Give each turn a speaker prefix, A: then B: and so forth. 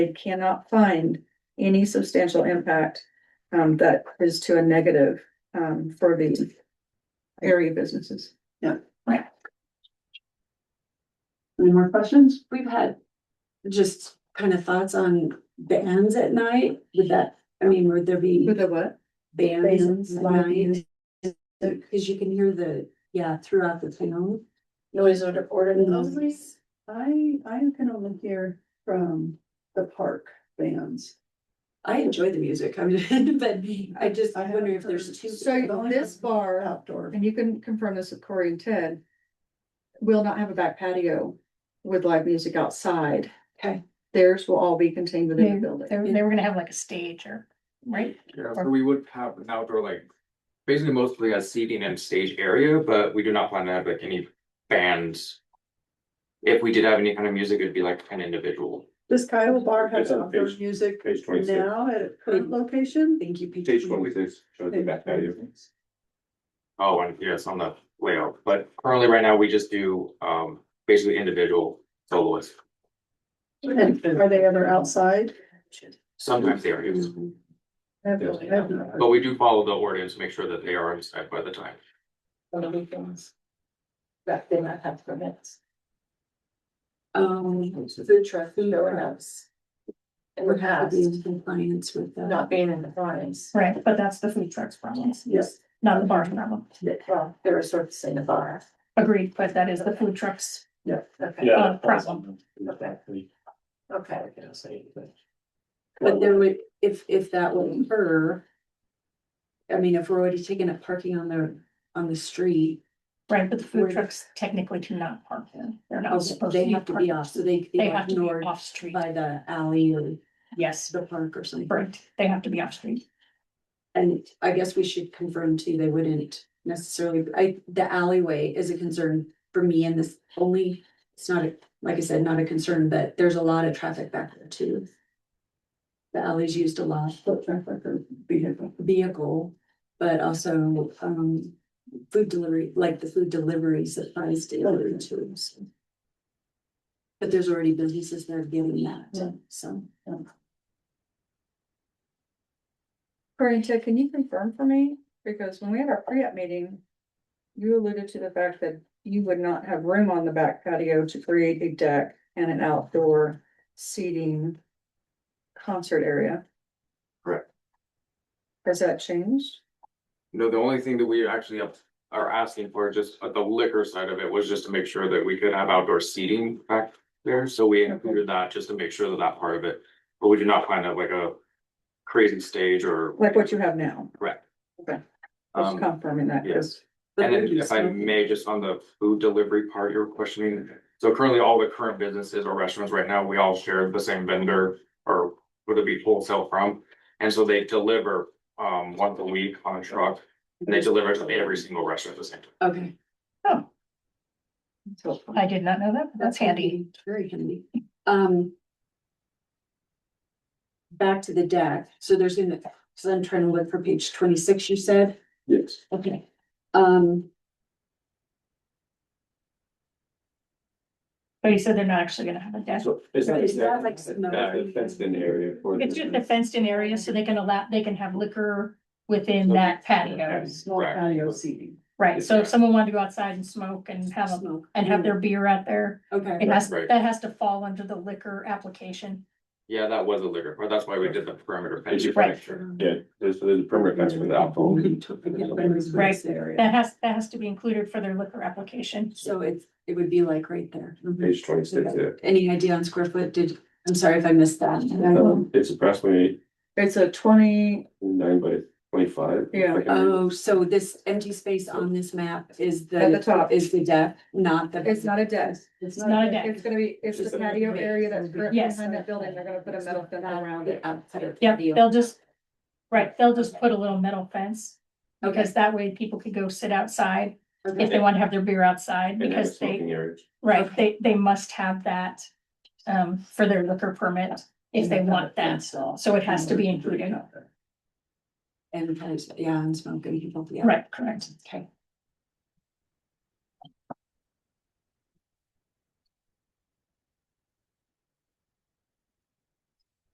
A: they cannot find any substantial impact um, that is to a negative um, for the area businesses.
B: Any more questions?
C: We've had just kind of thoughts on bands at night, would that, I mean, would there be
A: With the what?
C: bands at
B: Live
C: night? Cause you can hear the, yeah, throughout the town.
D: noise order ordered in those
B: Mhm.
D: places.
B: I, I can only hear from the park bands.
C: I enjoy the music, I mean, but I just
B: I
C: wonder if
B: haven't
C: there's
B: heard.
C: two.
A: So this
B: Or
A: bar,
B: outdoor.
A: and you can confirm this with Corey and Ted, will not have a back patio with live music outside.
C: Okay.
A: Theirs will all be contained within the building.
E: They, were- they were gonna have like a stage or, right?
F: Yeah, so we would have an outdoor like, basically mostly a seating and stage area, but we do not plan to have like any bands. If we did have any kind of music, it'd be like an individual.
B: Does Kyle Bar have
G: It's on
B: outdoor
G: page-
B: music
G: page 26.
B: now at a current location?
C: Thank you, Peter.
G: Page twenty-six shows the back patio.
F: Oh, and yes, on the layout, but currently right now, we just do um basically individual soloists.
B: And are they ever outside?
F: Sometimes they are used,
B: I have no- I have no
G: Mm-hmm.
B: idea.
F: but we do follow the ordinance, to make sure that they are inside by the time.
D: On the weekends. That they might have permits,
C: Um,
D: food truck, showing up. In the
C: would have
D: past,
C: to be in compliance with that.
D: not being in the farms,
E: Right, but that's the food truck's problem,
B: Yes,
E: not the bar's problem.
D: that, well, they were sort of saying the bar.
E: Agreed, but that is the food truck's.
B: yeah.
D: Okay, Oh,
G: Yeah.
E: problem.
D: okay,
C: But there would, if, if that would occur. I mean, if we're already taking up parking on the, on the street,
E: Right, but the
C: Where-
E: food trucks technically do not park in. They're not supposed to.
C: they have to be
E: park.
C: off, so they.
E: They have to be
C: ignored
E: off street.
C: By the alley or
E: Yes,
C: the park or something.
E: right. They have to be off street.
C: And I guess we should confirm too, they wouldn't necessarily, I, the alleyway is a concern for me and this only. It's not, a like I said, not a concern, but there's a lot of traffic back there too. The alley's used a lot.
B: Foot traffic or vehicle.
C: vehicle, but also, um, food delivery, like the food deliveries that Friday's delivery to. so. But there's already businesses that are giving
B: Yeah.
C: that, so.
A: Corey and Ted, can you confirm for me? Because when we had our pre-op meeting, you alluded to the fact that you would not have room on the back patio to create a deck and an outdoor seating concert area.
F: Correct.
A: Has that changed?
F: No, the only thing that we actually have- are asking for, just at the liquor side of it, was just to make sure that we could have outdoor seating back there, so we included that just to make sure that that part of it. But we do not plan out like a crazy stage or,
A: Like what you have now?
F: Correct.
A: Okay. Just
F: um,
A: confirming that, because
C: but
F: and then
C: maybe
F: if I
C: smoking.
F: may, just on the food delivery part you're questioning. So currently, all the current businesses or restaurants right now, we all share the same vendor or would it be wholesale from? And so they deliver um once a week on a truck and they deliver to every single restaurant at the same time.
C: Okay.
A: so
E: I did not know that. but That's handy.
C: Very handy. Um. Back to the deck, so there's gonna, cause I'm trying to look for page twenty-six, you said,
G: Yes.
C: okay, um.
E: But you said they're not actually gonna have a desk.
G: So is that
C: Is that like
G: exactly,
C: some-
G: that fenced in area for.
E: It's just a fenced in area so they can allow, they can have liquor within
F: So-
E: that patio.
B: Small
F: Right.
B: patio seating.
E: Right, so if someone wanted to go outside and smoke and have a,
C: smoke.
E: and have their beer out there,
C: Okay,
E: It has,
F: Right.
E: that has to fall under the liquor application.
F: Yeah, that was a liquor, but that's why we did the perimeter
G: Did
F: fence.
G: you-
E: Right.
G: Yeah, there's, there's a perimeter fence for the alcohol.
E: Right.
C: Right area.
E: That has, that has to be included for their liquor application.
C: So it's, it would be like right there.
G: Page twenty-six, yeah.
C: Any idea on square foot? Did, I'm sorry if I missed that.
B: Um,
G: It's approximately
A: it's a twenty,
G: nine by twenty-five.
A: Yeah.
G: Like,
E: um,
C: Oh, so this empty space on this map is
A: at the
C: the,
A: top,
C: is the deck, not the.
A: it's not a desk.
B: It's
E: It's not a deck.
A: It's gonna be, it's the patio area that's currently
E: Yes.
A: behind that building. They're gonna put a metal fence around it.
C: Outside of.
E: Yeah,
C: patio.
E: they'll just, right, they'll just put a little metal fence.
C: Okay.
E: Because that way people could go sit outside if
C: Okay.
E: they want to have their beer outside
G: And have a
E: because they,
G: smoking area.
E: right, they, they must have that. Um, for their liquor permit if they want that. So it has to be included.
C: And, kind of- yeah, and smoking people, yeah.
E: Right, correct.
C: Okay.